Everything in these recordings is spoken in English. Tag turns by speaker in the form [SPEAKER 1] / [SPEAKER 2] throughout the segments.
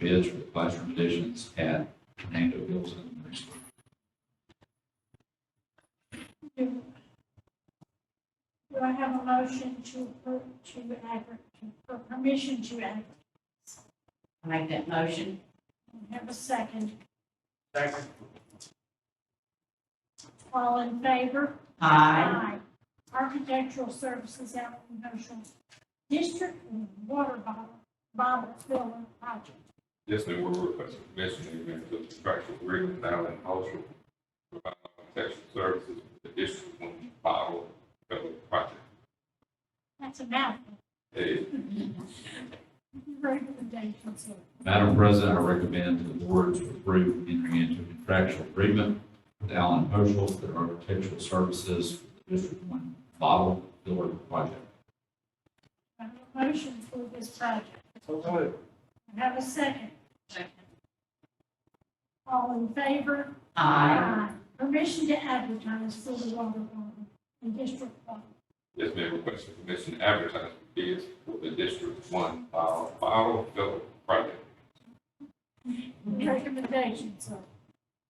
[SPEAKER 1] bids for classroom additions at Nando Hills Elementary School.
[SPEAKER 2] Do I have a motion to, per- to advert, to- for permission to advertise?
[SPEAKER 3] I make that motion.
[SPEAKER 2] And Have a second.
[SPEAKER 4] Second.
[SPEAKER 2] All in favor?
[SPEAKER 3] Aye.
[SPEAKER 2] Architectural services out in Goshen. District water bottle, bottle filler project.
[SPEAKER 5] Yes, ma'am, we're requesting permission to enter into a contractual agreement with Allen Cultural for provide protection services for the district one bottle federal project.
[SPEAKER 2] That's a mouthful.
[SPEAKER 5] Hey,
[SPEAKER 2] Recommendations here.
[SPEAKER 1] Madam President, I recommend to the board to approve entering into a contractual agreement with Allen Oshel for their architectural services for the District One bottle filler project.
[SPEAKER 2] I have a motion for this project.
[SPEAKER 4] So moved.
[SPEAKER 2] And Have a second. All in favor?
[SPEAKER 3] Aye.
[SPEAKER 2] Permission to advertise for the water bottle in District One.
[SPEAKER 5] Yes, ma'am, requesting permission to advertise for bids for the district one uh, bottle, bottle federal project.
[SPEAKER 2] Recommendations are.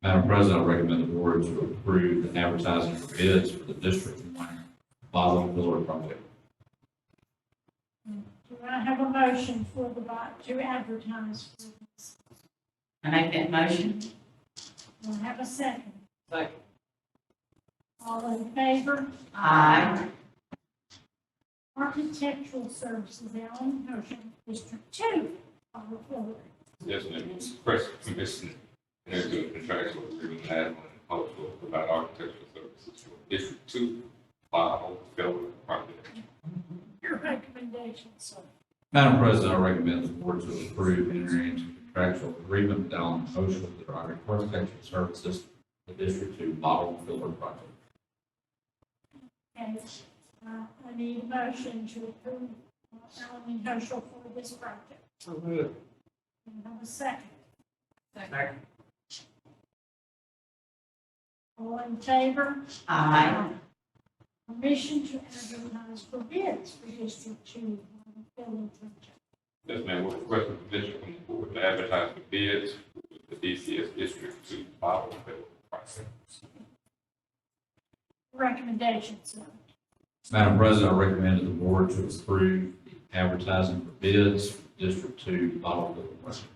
[SPEAKER 1] Madam President, I recommend the board to approve the advertising for bids for the District One bottle filler project.
[SPEAKER 2] Do I have a motion for the, bo- to advertise for this?
[SPEAKER 3] I make that motion.
[SPEAKER 2] Do I have a second?
[SPEAKER 4] Second.
[SPEAKER 2] All in favor?
[SPEAKER 3] Aye.
[SPEAKER 2] Architectural Services, Allen Motion, District Two, Barbara Fuller.
[SPEAKER 5] Yes, ma'am, requesting permission to enter into a contractual agreement with Allen Cultural for provide architectural services for the district two bottle federal project.
[SPEAKER 2] Your recommendation, sir.
[SPEAKER 1] Madam President, I recommend the board to approve entering into a contractual agreement with Allen Oshel for their architectural services for the District Two bottle filler project.
[SPEAKER 2] And uh, I need a motion to approve uh, Allen Motion for this project.
[SPEAKER 4] So moved.
[SPEAKER 2] Do I have a second?
[SPEAKER 4] Second.
[SPEAKER 2] All in favor?
[SPEAKER 3] Aye.
[SPEAKER 2] Permission to advertise for bids for District Two, Barbara Fuller project.
[SPEAKER 5] Yes, ma'am, we're requesting permission from the board to advertise for bids for the DCS District Two bottle fill project.
[SPEAKER 2] Recommendations, sir.
[SPEAKER 1] Madam President, I recommend to the board to approve the advertising for bids for District Two bottle filler project.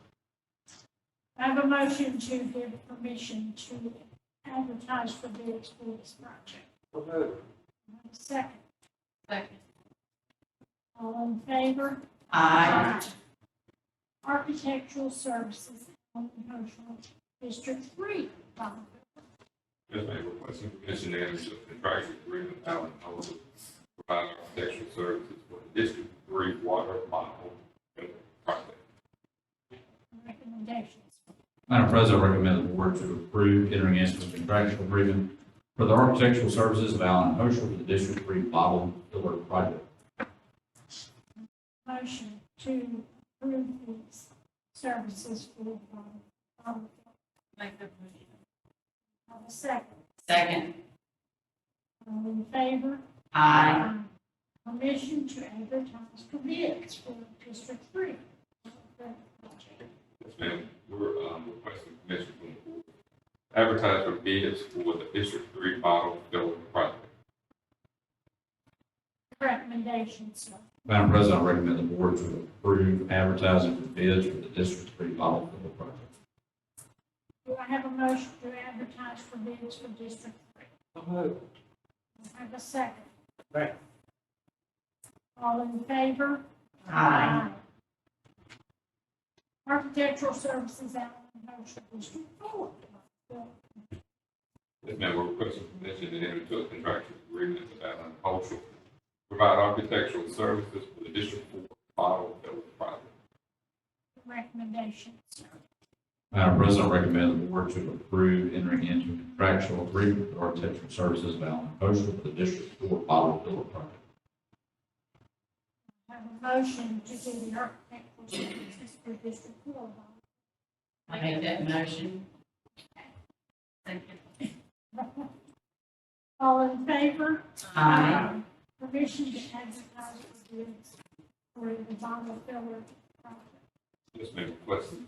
[SPEAKER 2] I have a motion to give permission to advertise for bids for this project.
[SPEAKER 4] So moved.
[SPEAKER 2] I have a Second,
[SPEAKER 3] Second.
[SPEAKER 2] all in favor?
[SPEAKER 3] Aye.
[SPEAKER 2] Architectural Services, Allen Cultural District Three, Bonneville.
[SPEAKER 5] Yes, ma'am, we're requesting permission to enter into a contractual agreement with Allen Holden to provide architectural services for the District Three water bottle fill project.
[SPEAKER 2] recommendations.
[SPEAKER 1] Madam President, I recommend the board to approve entering into a contractual agreement for the architectural services of Allen Oshel for the District Three bottle filler project.
[SPEAKER 2] Motion to approve these services for Bonneville.
[SPEAKER 3] Make that motion.
[SPEAKER 2] Have a second,
[SPEAKER 3] Second.
[SPEAKER 2] all in favor?
[SPEAKER 3] Aye.
[SPEAKER 2] Permission to advertise for bids for District Three. Bonneville project.
[SPEAKER 5] Yes, ma'am, we're, um, requesting permission from the board to advertise for bids for the District Three bottle fill project.
[SPEAKER 2] Recommendations, sir.
[SPEAKER 1] Madam President, I recommend the board to approve advertising for bids for the District Three bottle filler project.
[SPEAKER 2] Do I have a motion to advertise for bids for District Three?
[SPEAKER 4] So moved.
[SPEAKER 2] Do I have a second?
[SPEAKER 4] Second.
[SPEAKER 2] All in favor?
[SPEAKER 3] Aye.
[SPEAKER 2] Architectural Services Allen Motion District Four.
[SPEAKER 5] Yes, ma'am, we're requesting permission to enter into a contractual agreement with Allen Cultural to provide architectural services for the District Four model building project.
[SPEAKER 2] Recommendations, sir.
[SPEAKER 1] Madam President, I recommend the board to approve entering into a contractual agreement with architectural services of Allen Oshel for the District Four bottle filler project.
[SPEAKER 2] Have a motion to do the architectural services for District Four.
[SPEAKER 3] I make that motion. Second.
[SPEAKER 2] All in favor?
[SPEAKER 3] Aye.
[SPEAKER 2] Permission to advertise for bids for the Bonneville Filler project.
[SPEAKER 5] Yes, ma'am, requesting